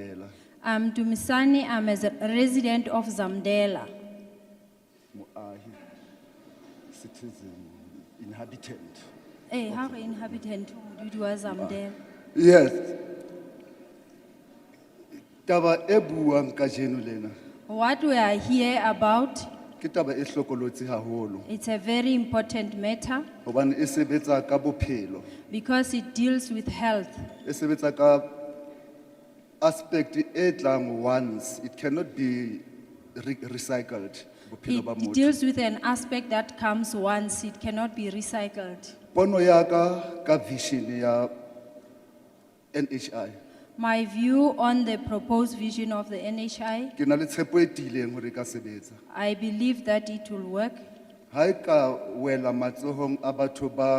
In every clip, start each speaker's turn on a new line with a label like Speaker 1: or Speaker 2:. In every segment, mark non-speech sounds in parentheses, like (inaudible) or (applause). Speaker 1: I'm Um, Dumisani, I'm a z- resident of Zamdela.
Speaker 2: moahi uh, citizen inhabitant
Speaker 1: Eh, ha re inhabitant modudi wa Zamdela.
Speaker 2: yes taba e buang ka jeno lena
Speaker 1: What we are here about,
Speaker 2: ke taba e hlokolotsi haholo
Speaker 1: it's a very important matter
Speaker 2: hobane e sebetsa ka bophelo
Speaker 1: because it deals with health.
Speaker 2: e sebetsa ka aspect e tlang once it cannot be re- recycled bophelo
Speaker 1: It,
Speaker 2: ba
Speaker 1: it
Speaker 2: motho
Speaker 1: deals with an aspect that comes once, it cannot be recycled.
Speaker 2: pono ya ka ka vision ya NHI
Speaker 1: My view on the proposed vision of the NHI,
Speaker 2: ke na le tshepo e tiileng hore e ka sebetsa
Speaker 1: I believe that it will work.
Speaker 2: ha e ka wela matsohong a batho ba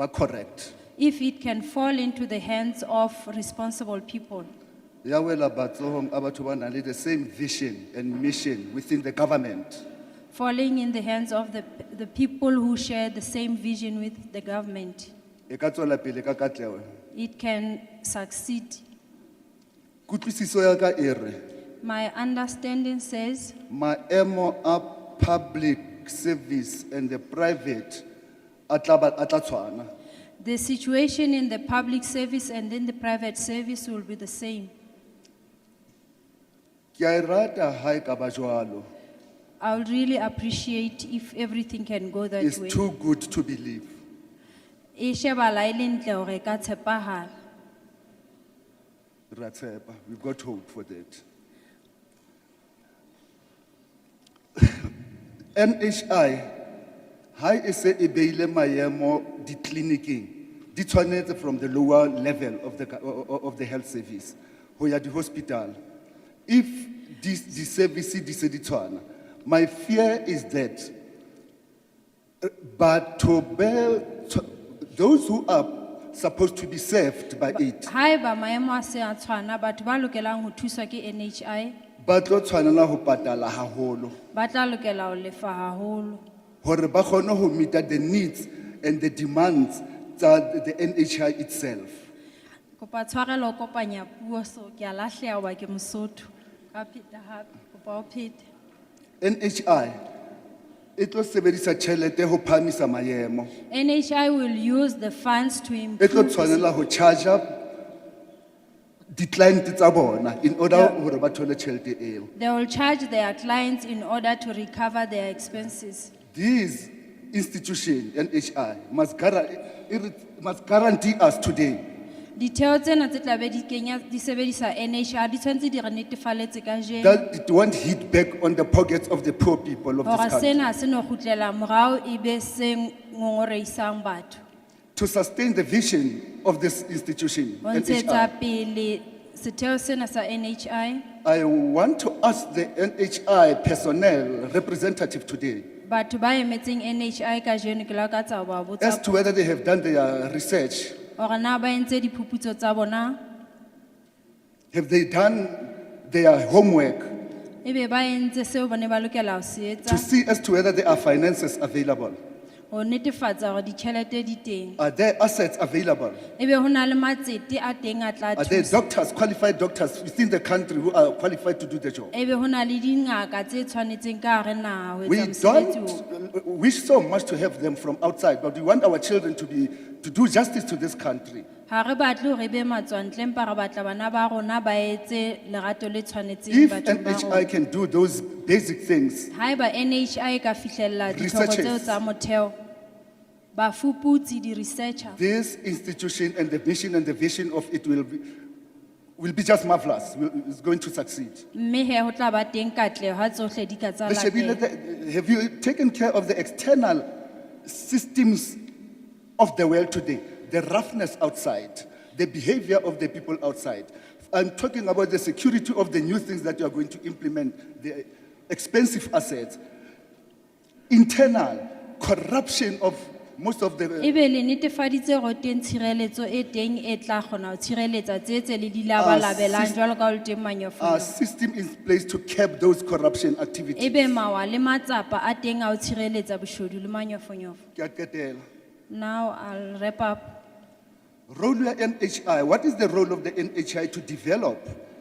Speaker 2: ba correct
Speaker 1: if it can fall into the hands of responsible people.
Speaker 2: ya wela matsohong a batho ba nang le the same vision and mission within the government
Speaker 1: Falling in the hands of the, the people who share the same vision with the government,
Speaker 2: e ka tswela pele ka katleho
Speaker 1: it can succeed.
Speaker 2: kutlwisiso ya ka e re
Speaker 1: My understanding says
Speaker 2: maemo a public service and the private a tla ba- a tla tshwana
Speaker 1: the situation in the public service and in the private service will be the same.
Speaker 2: ke a e rata ha e ka ba jwalo
Speaker 1: I would really appreciate if everything can go that
Speaker 2: it's
Speaker 1: way.
Speaker 2: too good to believe
Speaker 1: E shebala e le ntle hore e ka tshepahala.
Speaker 2: Re a tshepa. we've got hope for that (coughs) nhi ha e se e beile maemo ditleliniking di tshwanetse from the lower level of the, ka- o- o- of the health service ho ya di-hospital if dis- di-service di se di tshwana my fear is that eh, batho be tsh- those who are supposed to be served by it
Speaker 1: Haeba maemo a se a tshwana, batho ba lokelang ho thuswa ke NHI,
Speaker 2: ba tlo tshwanela ho patala haholo
Speaker 1: ba tla lokela ho lefa haholo
Speaker 2: hore ba kgone ho meet the needs and the demands tsa the NHI itself
Speaker 1: kopa tshwarelo ho kopanya puo so ke a lahleha hoba ke mosotho ka pheta hape kopa o phete
Speaker 2: NHI e tlo sebedisa tjhelete ho phamisa maemo
Speaker 1: nhi will use the funds to
Speaker 2: e tlo
Speaker 1: improve
Speaker 2: tshwanela ho charger di-client tsa bona in order
Speaker 1: Yeah.
Speaker 2: hore ba thole tjhelete eo
Speaker 1: they will charge their clients in order to recover their expenses
Speaker 2: This institution NHI must guarantee, must guarantee us today
Speaker 1: ditheo tsena tse tlabe di kenya di sebedisa nhi di tshwanetse di re netefaletse ka jeno
Speaker 2: that it won't hit back on the pockets of the poor people of
Speaker 1: hore
Speaker 2: this country
Speaker 1: sena se no kgutlela morao e be se ngongoreisang batho
Speaker 2: to sustain the vision of this institution.
Speaker 1: ho ntshetsa
Speaker 2: NHI.
Speaker 1: pele setheo sena sa nhi
Speaker 2: I want to ask the NHI personnel representative today
Speaker 1: batho ba emetseng nhi kajeno ke lakatsa ho ba
Speaker 2: as
Speaker 1: botsa
Speaker 2: to whether they have done their research.
Speaker 1: hore na ba entse diphuputso tsa bona
Speaker 2: Have they done their homework
Speaker 1: ebe ba entse seo ba ne ba lokela ho se etsa
Speaker 2: to see as to whether there are finances available?
Speaker 1: ho netefatsa hore ditjhelete di teng
Speaker 2: Are there assets available?
Speaker 1: ebe ho na le matsete a teng a tla
Speaker 2: Are there
Speaker 1: thusa
Speaker 2: doctors, qualified doctors within the country who are qualified to do the job?
Speaker 1: ebe ho na le dingaka tse tshwanetseng ka hare naha ho
Speaker 2: We
Speaker 1: etsa mosebetsi oo
Speaker 2: don't wish so much to have them from outside, but we want our children to be to do justice to this country.
Speaker 1: ha re batle hore ebe matswantle empa re batla bana ba rona ba etse lerato le tshwanetseng
Speaker 2: If
Speaker 1: bathong ba rona
Speaker 2: NHI can do those basic things,
Speaker 1: haeba nhi e ka fihlella ditlhoko
Speaker 2: Researchers.
Speaker 1: tseo tsa motheo bafuputsi di-researcher
Speaker 2: this institution and the mission and the vision of it will be, will be just marvelous. Will- It's going to succeed.
Speaker 1: mme he ho tla ba teng katleho ha tsohle di ka tsa
Speaker 2: They should be
Speaker 1: latela
Speaker 2: let- Have you taken care of the external systems of the world today? The roughness outside, the behavior of the people outside. I'm talking about the security of the new things that you are going to implement, the expensive assets, internal corruption of most of the.
Speaker 1: e be le netefaditse hore teng tshireletso e teng e tla kgona ho tshireletsa tse tse le di labalabelang
Speaker 2: sis- Ah,
Speaker 1: jwalo ka ho le teng
Speaker 2: a
Speaker 1: manyofonyofo
Speaker 2: system in place to cap those corruption
Speaker 1: e
Speaker 2: activities.
Speaker 1: be mawa le matsapa a teng a ho tshireletsa boshodu le manyofonyofo
Speaker 2: Ke a qetela.
Speaker 1: now i'll wrap up
Speaker 2: Role ya NHI, what is the role of the NHI to develop